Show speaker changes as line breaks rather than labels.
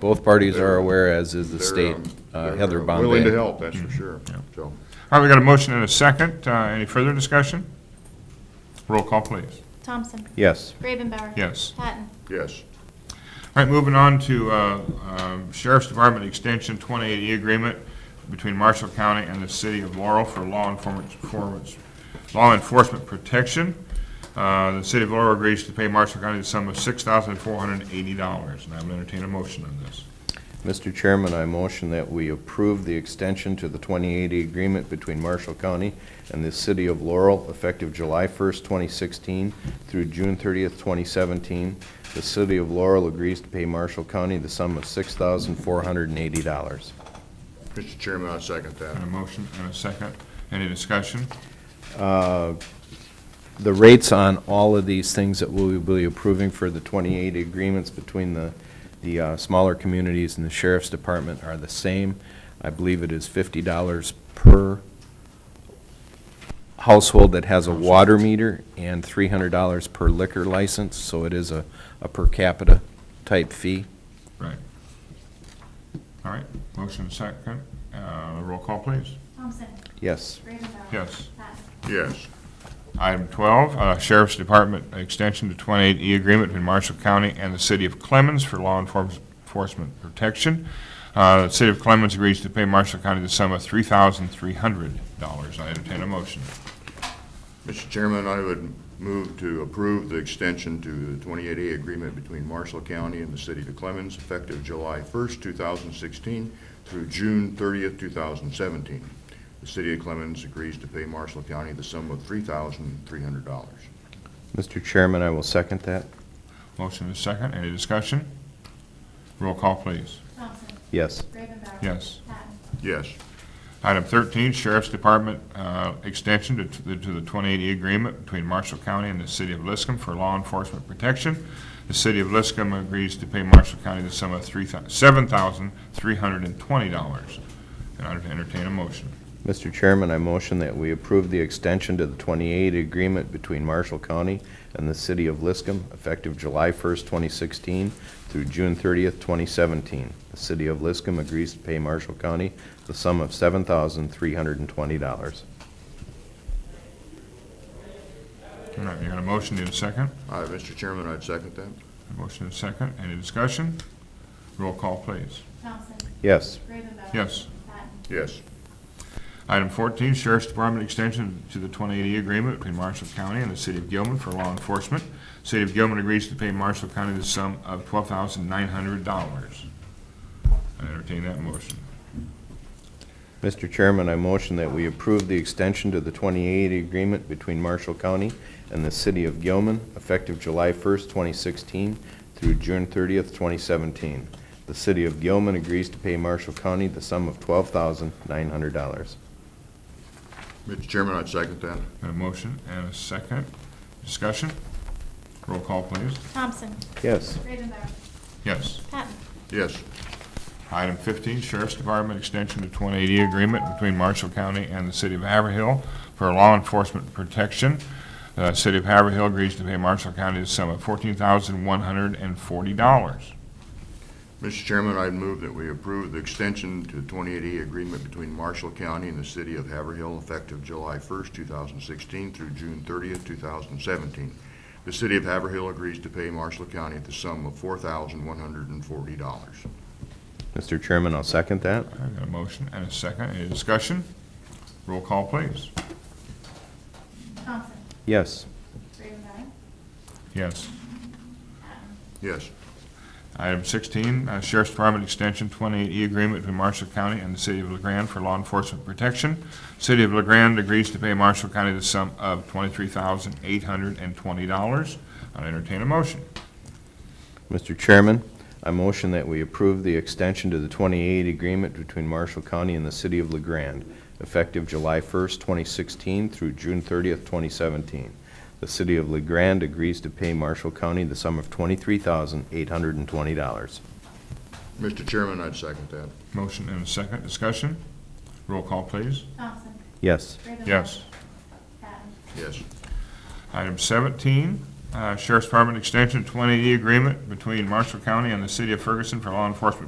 both parties are aware, as is the
uh, They're,
state.
um,
Uh,
they're,
Heather
uh,
Bombay.
Willing to help, that's for sure, so.
All right, we got a motion and a second. Uh, Any further discussion? Roll call, please.
Thompson.
Yes.
Gravenbauer.
Yes.
Patton.
Yes.
All right, moving on to uh, um, Sheriff's Department Extension 2080 Agreement between Marshall County and the City of Laurel for law enforcement- performance- law enforcement protection. Uh, The City of Laurel agrees to pay Marshall County the sum of $6,480, and I will entertain a motion on this.
Mr. Chairman, I motion that we approve the extension to the 2080 agreement between Marshall County and the City of Laurel effective July 1st, 2016 through June 30th, 2017. The City of Laurel agrees to pay Marshall County the sum of $6,480.
Mr. Chairman, I second
And a
that.
motion and a second. Any discussion?
uh, The rates on all of these things that we'll be approving for the 2080 agreements between the, the uh, smaller communities and the sheriff's department are the same. I believe it is $50 per household that has a water meter and $300 per liquor license, so it is a, a per capita type fee.
Right. All right, motion and second. Uh, Roll call, please.
Thompson.
Yes.
Gravenbauer.
Yes.
Patton.
Yes.
Item 12, uh, Sheriff's Department Extension to 28E Agreement between Marshall County and the City of Clemens for law enforce- enforcement protection. Uh, The City of Clemens agrees to pay Marshall County the sum of $3,300. I entertain a motion.
Mr. Chairman, I would move to approve the extension to the 28A agreement between Marshall County and the City of Clemens effective July 1st, 2016 through June 30th, 2017. The City of Clemens agrees to pay Marshall County the sum of $3,300.
Mr. Chairman, I will second that.
Motion is second. Any discussion? Roll call, please.
Thompson.
Yes.
Gravenbauer.
Yes.
Patton.
Yes.
Item 13, Sheriff's Department uh, Extension to to the 2080 Agreement between Marshall County and the City of Liscum for law enforcement protection. The City of Liscum agrees to pay Marshall County the sum of three thou- $7,320. And I entertain a motion.
Mr. Chairman, I motion that we approve the extension to the 28 agreement between Marshall County and the City of Liscum effective July 1st, 2016 through June 30th, 2017. The City of Liscum agrees to pay Marshall County the sum of $7,320.
All right, you got a motion, need a second?
All right, Mr. Chairman, I'd second that.
Motion and a second, any discussion? Roll call, please.
Thompson.
Yes.
Gravenbauer.
Yes.
Patton.
Yes.
Item 14, Sheriff's Department Extension to the 2080 Agreement between Marshall County and the City of Gilman for law enforcement. City of Gilman agrees to pay Marshall County the sum of $12,900. I entertain that motion.
Mr. Chairman, I motion that we approve the extension to the 2080 agreement between Marshall County and the City of Gilman effective July 1st, 2016 through June 30th, 2017. The City of Gilman agrees to pay Marshall County the sum of $12,900.
Mr. Chairman, I'd second that.
Got a motion and a second. Discussion? Roll call, please.
Thompson.
Yes.
Gravenbauer.
Yes.
Patton.
Yes.
Item 15, Sheriff's Department Extension to 2080 Agreement between Marshall County and the City of Haverhill for law enforcement protection. The City of Haverhill agrees to pay Marshall County the sum of $14,140.
Mr. Chairman, I'd move that we approve the extension to the 28E agreement between Marshall County and the City of Haverhill effective July 1st, 2016 through June 30th, 2017. The City of Haverhill agrees to pay Marshall County the sum of $4,140.
Mr. Chairman, I'll second that.
I got a motion and a second. Any discussion? Roll call, please.
Thompson.
Yes.
Gravenbauer.
Yes.
Yes.
Item 16, uh, Sheriff's Department Extension 28E Agreement between Marshall County and the City of LaGrande for law enforcement protection. City of LaGrande agrees to pay Marshall County the sum of $23,820. I'll entertain a motion.
Mr. Chairman, I motion that we approve the extension to the 2080 agreement between Marshall County and the City of LeGrand, effective July 1st, 2016 through June 30th, 2017. The City of LeGrand agrees to pay Marshall County the sum of $23,820.
Mr. Chairman, I'd second that.
Motion and a second. Discussion? Roll call, please.
Thompson.
Yes.
Gravenbauer.
Yes.
Patton.
Yes.
Item 17, E uh, Sheriff's Department Extension 20E Agreement between Marshall County and the City of Ferguson for law enforcement